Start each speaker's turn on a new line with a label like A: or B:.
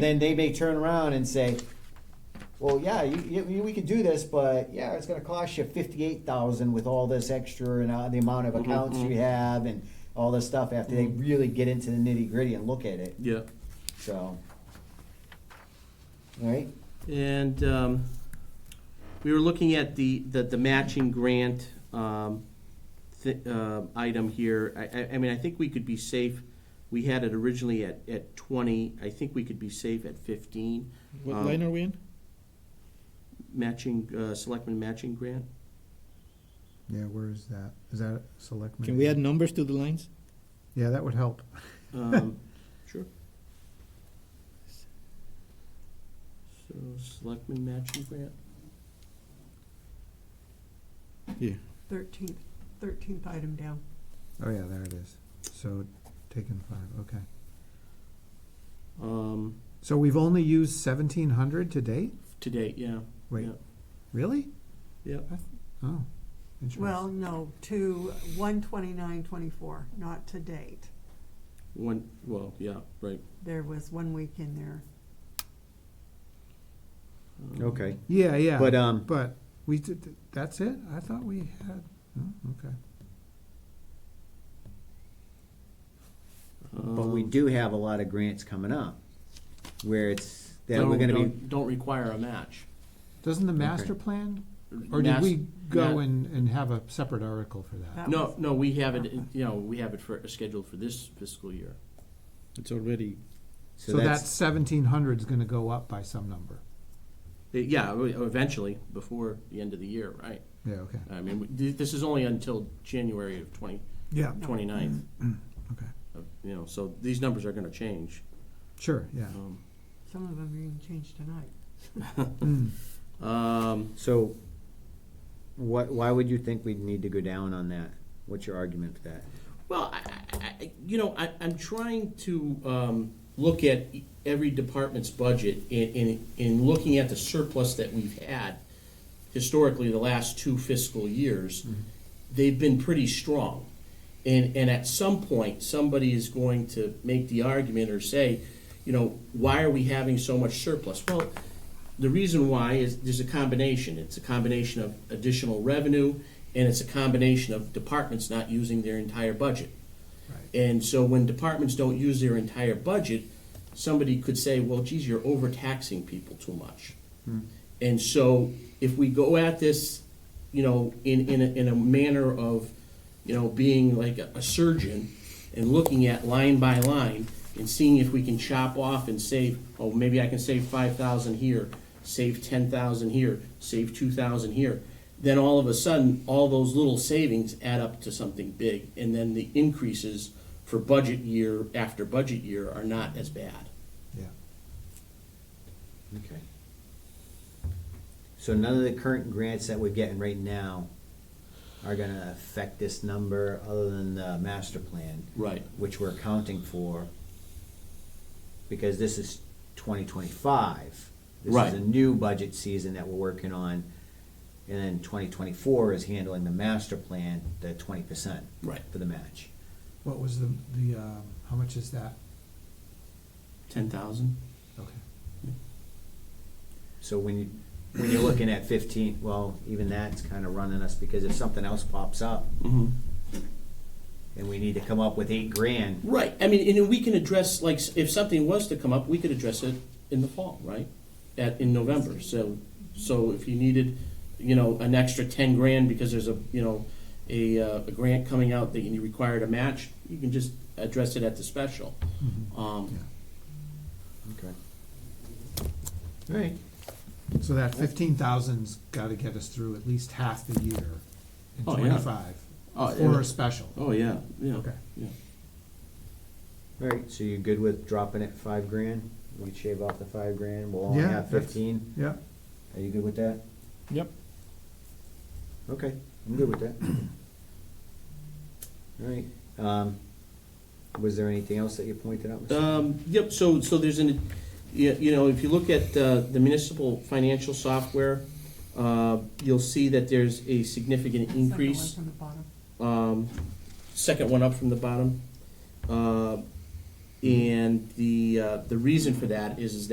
A: Then they may turn around and say, well, yeah, you, you, you- we could do this, but yeah, it's gonna cost you fifty-eight thousand with all this extra and uh, the amount of accounts you have and all this stuff after they really get into the nitty-gritty and look at it,
B: Yeah,
A: so. Right?
B: and um, we were looking at the, the, the matching grant um, thi- uh, item here. I, I, I mean, I think we could be safe, we had it originally at, at twenty, I think we could be safe at fifteen.
C: What
B: Um,
C: line are we in?
B: Matching, uh, selectmen matching grant?
D: Yeah, where is that? Is that selectmen?
C: Can we add numbers to the lines?
D: Yeah, that would help.
B: Um, Sure. So, selectmen matching grant?
C: Yeah.
E: Thirteenth, thirteenth item down.
D: Oh, yeah, there it is. So taken five, okay.
B: Um,
D: So we've only used seventeen hundred to date?
B: to date, yeah.
D: Wait,
B: Yeah.
D: really?
B: Yep.
D: Oh, interesting.
E: Well, no, to one twenty-nine twenty-four, not to date.
B: One, well, yeah, right.
E: There was one week in there.
B: Um,
A: Okay,
D: Yeah, yeah.
A: but, um,
D: But we did, that's it? I thought we had, oh, okay.
A: but we
B: Um,
A: do have a lot of grants coming up where it's, that we're
B: don't-
A: gonna be,
B: don't- Don't require a match.
D: Doesn't the master
A: Okay.
D: plan, or did
B: Mas-
D: we go
B: ma-
D: and, and have a separate article for that?
E: That
B: No,
E: was-
B: no, we have it, in- you know, we have it for, scheduled for this fiscal year.
C: It's already.
A: so
D: So that
A: that's,
D: seventeen hundred's gonna go up by some number.
B: Eh, Yeah, we- eventually, before the end of the year, right?
D: Yeah, okay.
B: I mean, we- th- this is only until January of twenty,
D: Yeah.
B: twenty-ninth.
D: Mm-hmm. Okay.
B: of- You know, so these numbers are gonna change.
D: Sure, yeah.
B: Um,
E: Some of them are even changed tonight.
D: Mm.
B: Um,
A: so what, why would you think we'd need to go down on that? What's your argument for that?
B: Well, I, I- I, you know, I, I'm trying to um, look at every department's budget in, in, in looking at the surplus that we've had historically the last two fiscal years. They've been pretty strong. And, and at some point, somebody is going to make the argument or say, you know, why are we having so much surplus? Well, the reason why is there's a combination. It's a combination of additional revenue and it's a combination of departments not using their entire budget. And so when departments don't use their entire budget, somebody could say, well, geez, you're overtaxing people too much. Hmm. And so if we go at this, you know, in, in, a, in a manner of, you know, being like a, a surgeon and looking at line by line and seeing if we can chop off and save, oh, maybe I can save five thousand here, save ten thousand here, save two thousand here. Then all of a sudden, all those little savings add up to something big, and then the increases for budget year after budget year are not as bad.
D: Yeah.
A: Okay. So none of the current grants that we're getting right now are gonna affect this number other than the master plan,
B: Right.
A: which we're accounting for, because this is twenty twenty-five. This is
B: Right.
A: a new budget season that we're working on, and then twenty twenty-four is handling the master plan, the twenty percent
B: Right.
A: for the match.
D: What was the, the, um, how much is that?
B: Ten thousand?
D: Okay.
A: So when you, when you're looking at fifteen, well, even that's kinda running us, because if something else pops up,
B: Mm-hmm.
A: and we need to come up with eight grand.
B: Right, I mean, and we can address, like, if something was to come up, we could address it in the fall, right? At, in November, so, so if you needed, you know, an extra ten grand because there's a, you know, a, uh, a grant coming out that you required a match, you can just address it at the special.
D: Mm-hmm.
B: Um,
A: Okay. All right.
D: So that fifteen thousand's gotta get us through at least half the year in
B: Oh, yeah.
D: twenty-five
B: Oh,
D: for
B: yeah.
D: a special.
B: oh, yeah, yeah.
D: Okay.
B: Yeah,
A: All right, so you're good with dropping it five grand? We could shave off the five grand, we'll only
D: Yeah,
A: have
D: that's-
A: fifteen.
D: Yeah.
A: Are you good with that?
C: Yep.
A: Okay, I'm good with that. All right, um, was there anything else that you pointed out? Mr.
B: Um, yep, so, so there's an, you you know, if you look at uh, the municipal financial software, uh, you'll see that there's a significant
E: Second one
B: increase.
E: From the bottom.
B: um, second one up from the bottom. Uh, and the, uh, the reason for that is, is